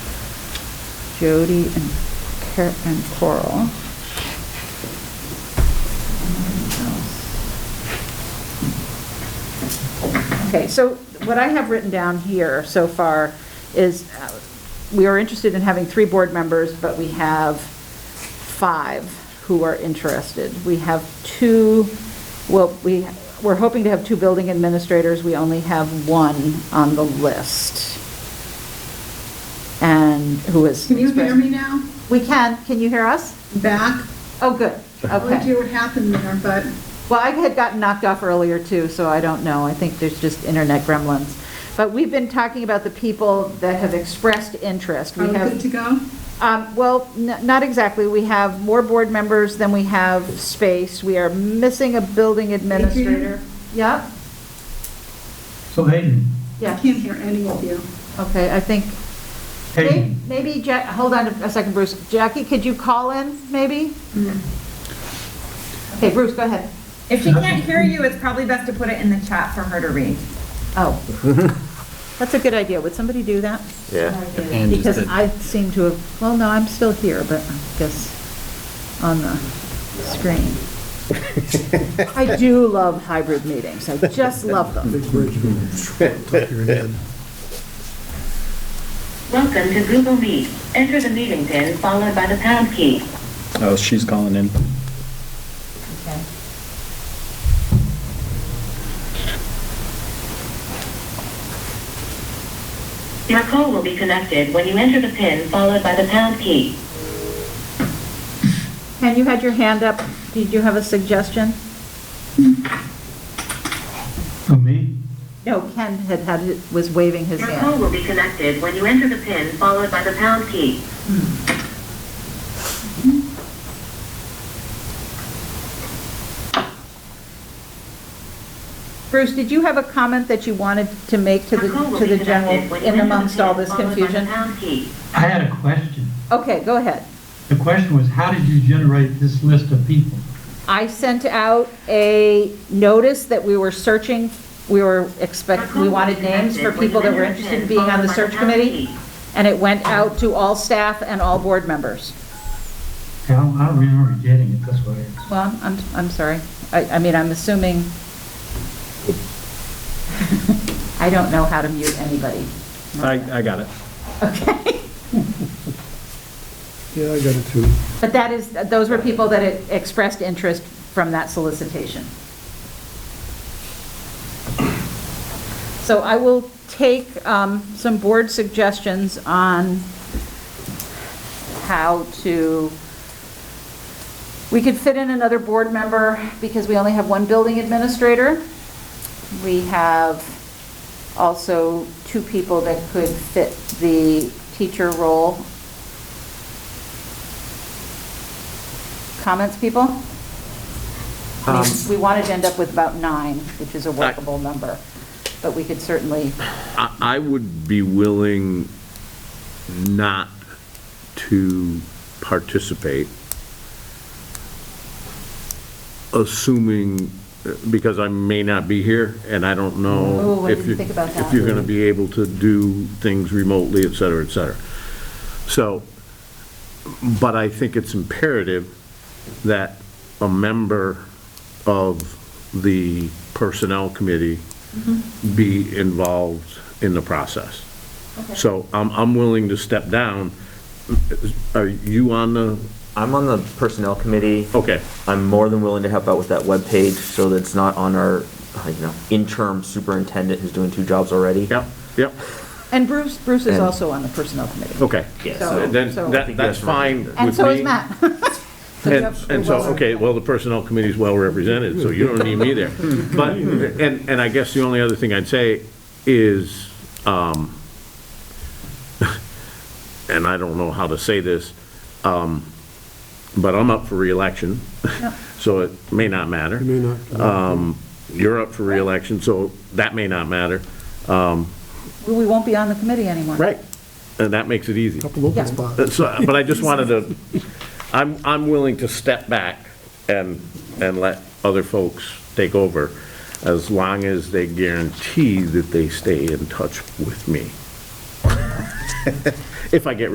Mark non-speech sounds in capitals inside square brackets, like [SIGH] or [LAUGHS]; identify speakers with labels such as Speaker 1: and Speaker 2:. Speaker 1: Jody and Car- and Coral. Okay, so what I have written down here so far is, uh, we are interested in having three board members, but we have five who are interested. We have two, well, we, we're hoping to have two building administrators, we only have one on the list. And who is.
Speaker 2: Can you hear me now?
Speaker 1: We can, can you hear us?
Speaker 2: Back?
Speaker 1: Oh, good,
Speaker 2: I don't
Speaker 1: okay.
Speaker 2: know what happened there, but
Speaker 1: Well, I had gotten knocked off earlier too, so I don't know. I think there's just internet gremlins. But we've been talking about the people that have expressed interest.
Speaker 2: are
Speaker 1: We
Speaker 2: we
Speaker 1: have,
Speaker 2: Oh, good to go?
Speaker 1: um, well, n- not exactly. We have more board members than we have space. We are missing a building administrator. Yep,
Speaker 3: So Hayden,
Speaker 2: I
Speaker 1: yeah,
Speaker 2: can't hear any of you.
Speaker 1: okay, I think, may-
Speaker 3: Hayden,
Speaker 1: maybe, Ja- hold on a second, Bruce. Jackie, could you call in, maybe?
Speaker 2: Mm-hmm.
Speaker 1: Okay, Bruce, go ahead.
Speaker 4: If she can't hear you, it's probably best to put it in the chat for her to read.
Speaker 5: [LAUGHS]
Speaker 1: Oh. That's a good idea. Would somebody do that?
Speaker 4: Yeah.
Speaker 5: And just
Speaker 1: Because
Speaker 5: the-
Speaker 1: I seem to have, well, no, I'm still here, but I guess on the screen. I do love hybrid meetings. I just love them.
Speaker 6: Welcome to Google Meet. Enter the meeting pin followed by the pound key.
Speaker 5: Oh, she's calling in.
Speaker 6: Your call will be connected when you enter the pin followed by the pound key.
Speaker 1: Ken, you had your hand up. Did you have a suggestion?
Speaker 3: for me?
Speaker 1: No, Ken had had, was waving his
Speaker 6: Your call
Speaker 1: hand.
Speaker 6: will be connected when you enter the pin followed by the pound key.
Speaker 1: Bruce, did you have a comment that you wanted to make to the,
Speaker 6: Your call will
Speaker 1: to
Speaker 6: be
Speaker 1: the general,
Speaker 6: connected when you
Speaker 1: in
Speaker 6: enter the
Speaker 1: amongst all
Speaker 6: pin
Speaker 1: this
Speaker 6: followed by the
Speaker 1: confusion?
Speaker 6: pound key.
Speaker 3: I had a question.
Speaker 1: Okay, go ahead.
Speaker 3: The question was, how did you generate this list of people?
Speaker 1: I sent out a notice that we were searching, we were expect, we wanted names for people that were interested in being on the search committee, and it went out to all staff and all board members.
Speaker 3: I don't, I don't remember getting it this way.
Speaker 1: Well, I'm, I'm sorry. I, I mean, I'm assuming, [LAUGHS] I don't know how to mute anybody.
Speaker 5: I, I got it.
Speaker 1: Okay.
Speaker 7: Yeah, I got it too.
Speaker 1: But that is, those were people that had expressed interest from that solicitation. So I will take um, some board suggestions on how to, we could fit in another board member because we only have one building administrator. We have also two people that could fit the teacher role. Comments, people? I mean, We wanted to end up with about nine, which is a workable number, but we could certainly,
Speaker 8: I, I would be willing not to participate, assuming, because I may not be here, and I don't
Speaker 1: Ooh,
Speaker 8: know
Speaker 1: I
Speaker 8: if
Speaker 1: didn't
Speaker 8: you,
Speaker 1: think about that.
Speaker 8: if you're gonna be able to do things remotely, et cetera, et cetera. So, but I think it's imperative that a member of the Personnel Committee
Speaker 1: Mm-hmm.
Speaker 8: be involved in the process. So I'm, I'm willing to step down. Are you on the,
Speaker 9: I'm on the personnel committee.
Speaker 8: okay,
Speaker 9: I'm more than willing to help out with that webpage so that it's not on our, you know, interim superintendent who's doing two jobs already.
Speaker 8: yep, yep,
Speaker 1: and Bruce, Bruce is
Speaker 9: And-
Speaker 1: also on the personnel committee.
Speaker 8: okay.
Speaker 9: Yeah,
Speaker 1: So-
Speaker 9: so
Speaker 8: Then,
Speaker 1: so-
Speaker 8: that, that's fine with me.
Speaker 1: And so is Matt. [LAUGHS] you
Speaker 8: And,
Speaker 1: have-
Speaker 8: and so, okay, well, the Personnel Committee is well represented, so you don't need me there. But, and, and I guess the only other thing I'd say is, um, [LAUGHS] and I don't know how to say this, um, but I'm up for reelection, [LAUGHS] so it may not matter.
Speaker 7: You may not.
Speaker 8: Um, you're up for reelection, so that may not matter. Um,
Speaker 1: We won't be on the committee anymore.
Speaker 8: And that makes it easy.
Speaker 7: Couple open
Speaker 1: Yeah.
Speaker 7: spots.
Speaker 8: That's- But I just wanted to, I'm, I'm willing to step back and, and let other folks take over as long as they guarantee that they stay in touch with me. If I get